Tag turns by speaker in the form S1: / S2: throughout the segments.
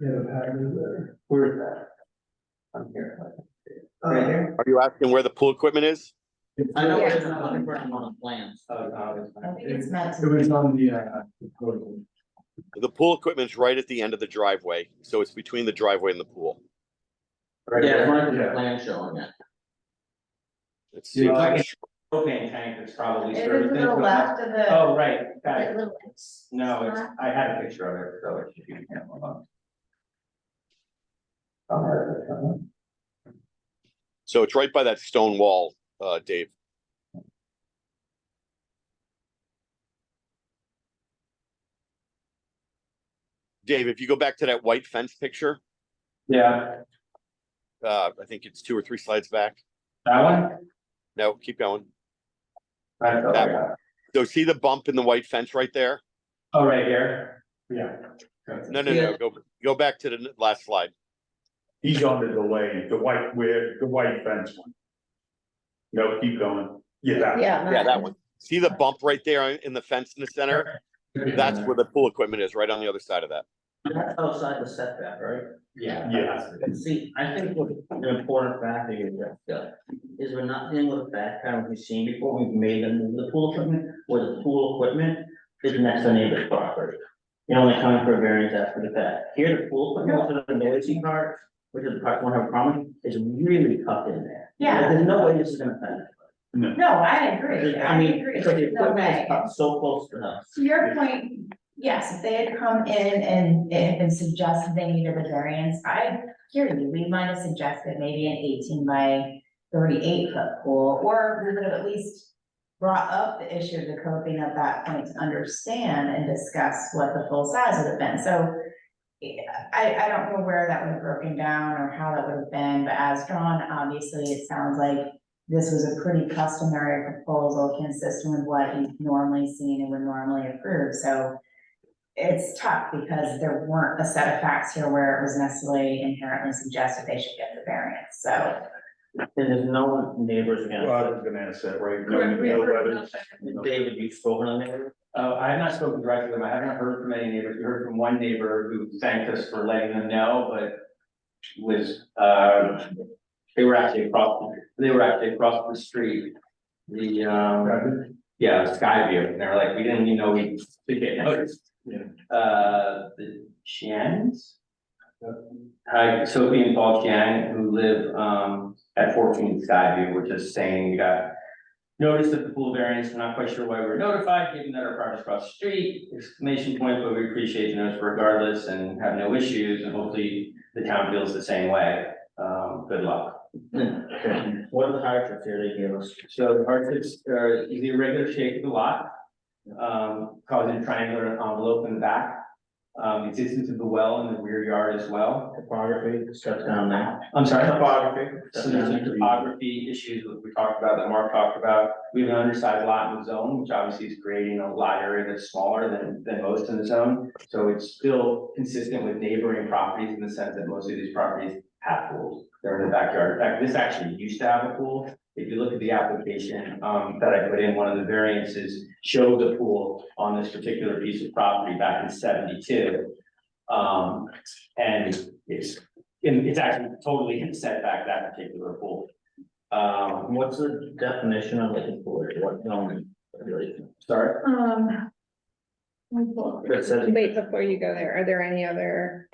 S1: Yeah, the pattern there.
S2: Where's that? I'm here. I can see it.
S1: Uh,
S2: Right here?
S3: Are you asking where the pool equipment is?
S2: I know
S4: Yeah.
S2: it's not on the front on the plans. Oh, no, it's
S4: I
S2: not.
S4: think it's meant
S1: It
S4: to
S1: was
S4: be,
S1: on the, uh, proposal.
S3: The pool equipment's right at the end of the driveway, so it's between the driveway and the pool.
S1: Right
S2: Yeah,
S1: there.
S2: it's not the
S1: Yeah.
S2: plan showing it.
S3: It
S2: Yeah,
S3: seems
S2: I
S3: like
S2: can-
S3: a sh-
S5: propane tank that's probably
S4: it is
S5: serviced.
S4: to the left of the,
S5: Oh, right, got
S4: that
S5: it.
S4: little.
S5: No, it's,
S4: spot.
S5: I had a picture of it, so it should be. yeah, hold on.
S3: So it's right by that stone wall, uh, Dave. Dave, if you go back to that white fence picture,
S5: Yeah,
S3: uh, I think it's two or three slides back.
S5: that one?
S3: No, keep going.
S5: That's over
S3: That
S5: there.
S3: So see the bump in the white fence right there?
S5: Oh, right here? Yeah. That's it.
S3: No, no, no, go, go back to the n- last slide.
S6: He's on the delay, the white, where, the white fence one. No, keep going. Yeah, that one.
S4: Yeah.
S3: Yeah, that one. See the bump right there in the fence in the center? That's where the pool equipment is, right on the other side of that.
S2: That's outside the setback, right?
S5: Yeah.
S6: Yeah.
S2: And see, I think what the important factor is that, uh, is we're not dealing with a fact pattern we've seen before, we've made them move the pool equipment, where the pool equipment is next to neighbor's property. You're only coming for a variance after the fact, here the pool equipment, which is the noisy part, which is the part we have a problem, is really tucked in there.
S4: Yeah.
S2: There's no way this is gonna happen.
S4: No, I agree,
S2: I
S4: I
S2: mean,
S4: agree,
S2: because the
S4: there's no
S2: equipment
S4: way.
S2: is up so close to us.
S4: To your point, yes, if they had come in and, and and suggested they needed a variance, I hear you, we might have suggested maybe an eighteen by thirty-eight foot pool, or we would have at least brought up the issue of the coping at that point to understand and discuss what the full size would have been, so yeah, I, I don't know where that would have broken down or how that would have been, but as drawn, obviously, it sounds like this was a pretty customary proposal consistent with what you've normally seen and would normally approve, so it's tough because there weren't a set of facts here where it was necessarily inherently suggested they should get the variance, so.
S2: And there's no neighbors
S6: Well, I
S2: again,
S6: was gonna ask that, right?
S7: Correct, we
S6: No
S7: have heard
S6: letters, no-
S2: David, you've spoken on that.
S5: Oh, I have not spoken directly to them. I haven't heard from any neighbors. We heard from one neighbor who thanked us for letting them know, but was, uh, they were actually across, they were actually across the street. The, um, yeah, Skyview, and they were like, we didn't even know we could get noticed. Uh, the Chans? Hi, Sophie and Paul Chan, who live, um, at fourteen Skyview, were just saying, we got notice of the pool variance, we're not quite sure why we were notified, given that our property's across the street, exclamation point, but we appreciate the notice regardless and have no issues, and hopefully the town feels the same way. Um, good luck.
S2: What are the hardships here they gave us?
S5: So the hardships are the irregular shape of the lot, um, causing triangular envelope in the back. Um, existence of the well in the rear yard as well.
S2: Topography, stuff down there.
S5: I'm sorry.
S2: Topography.
S5: So there's some topography issues that we talked about, that Mark talked about. We have an undersized lot in the zone, which obviously is creating a lot area that's smaller than, than most in the zone. So it's still consistent with neighboring properties in the sense that most of these properties have pools. They're in the backyard. In fact, this actually used to have a pool. If you look at the application, um, that I put in, one of the variances showed the pool on this particular piece of property back in seventy-two. Um, and it's and it's actually totally in setback, that particular pool. Um,
S2: What's the definition of like a pool, what zoning regulation?
S5: sorry,
S7: Um. Wait
S2: That says-
S7: before you go there, are there any other?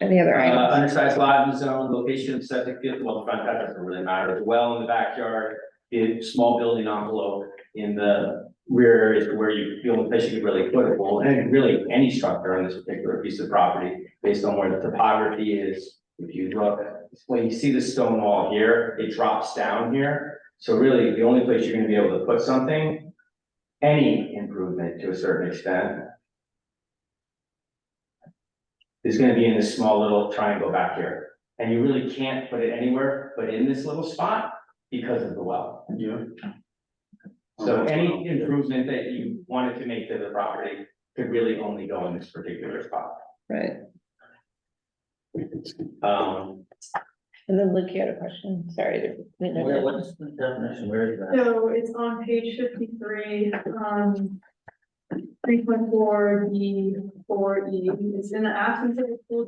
S7: Any other
S5: uh,
S7: items?
S5: undersized lot in the zone, location of septic field, well, front, that doesn't really matter, The well in the backyard. The small building envelope in the rear area is where you, the only place you could really put a pool, and really any structure on this particular piece of property. Based on where the topography is, if you look, when you see the stone wall here, it drops down here. So really, the only place you're gonna be able to put something, any improvement to a certain extent. Is gonna be in this small little triangle back here, and you really can't put it anywhere but in this little spot because of the well.
S6: Yeah.
S5: So any improvement that you wanted to make to the property could really only go in this particular spot.
S7: Right,
S5: Um,
S7: and then Luke, you had a question, sorry. to-
S2: Where, what's the definition, where is that?
S7: So it's on page fifty-three, um.
S8: Three point four D, four E, it's in the absence of a pool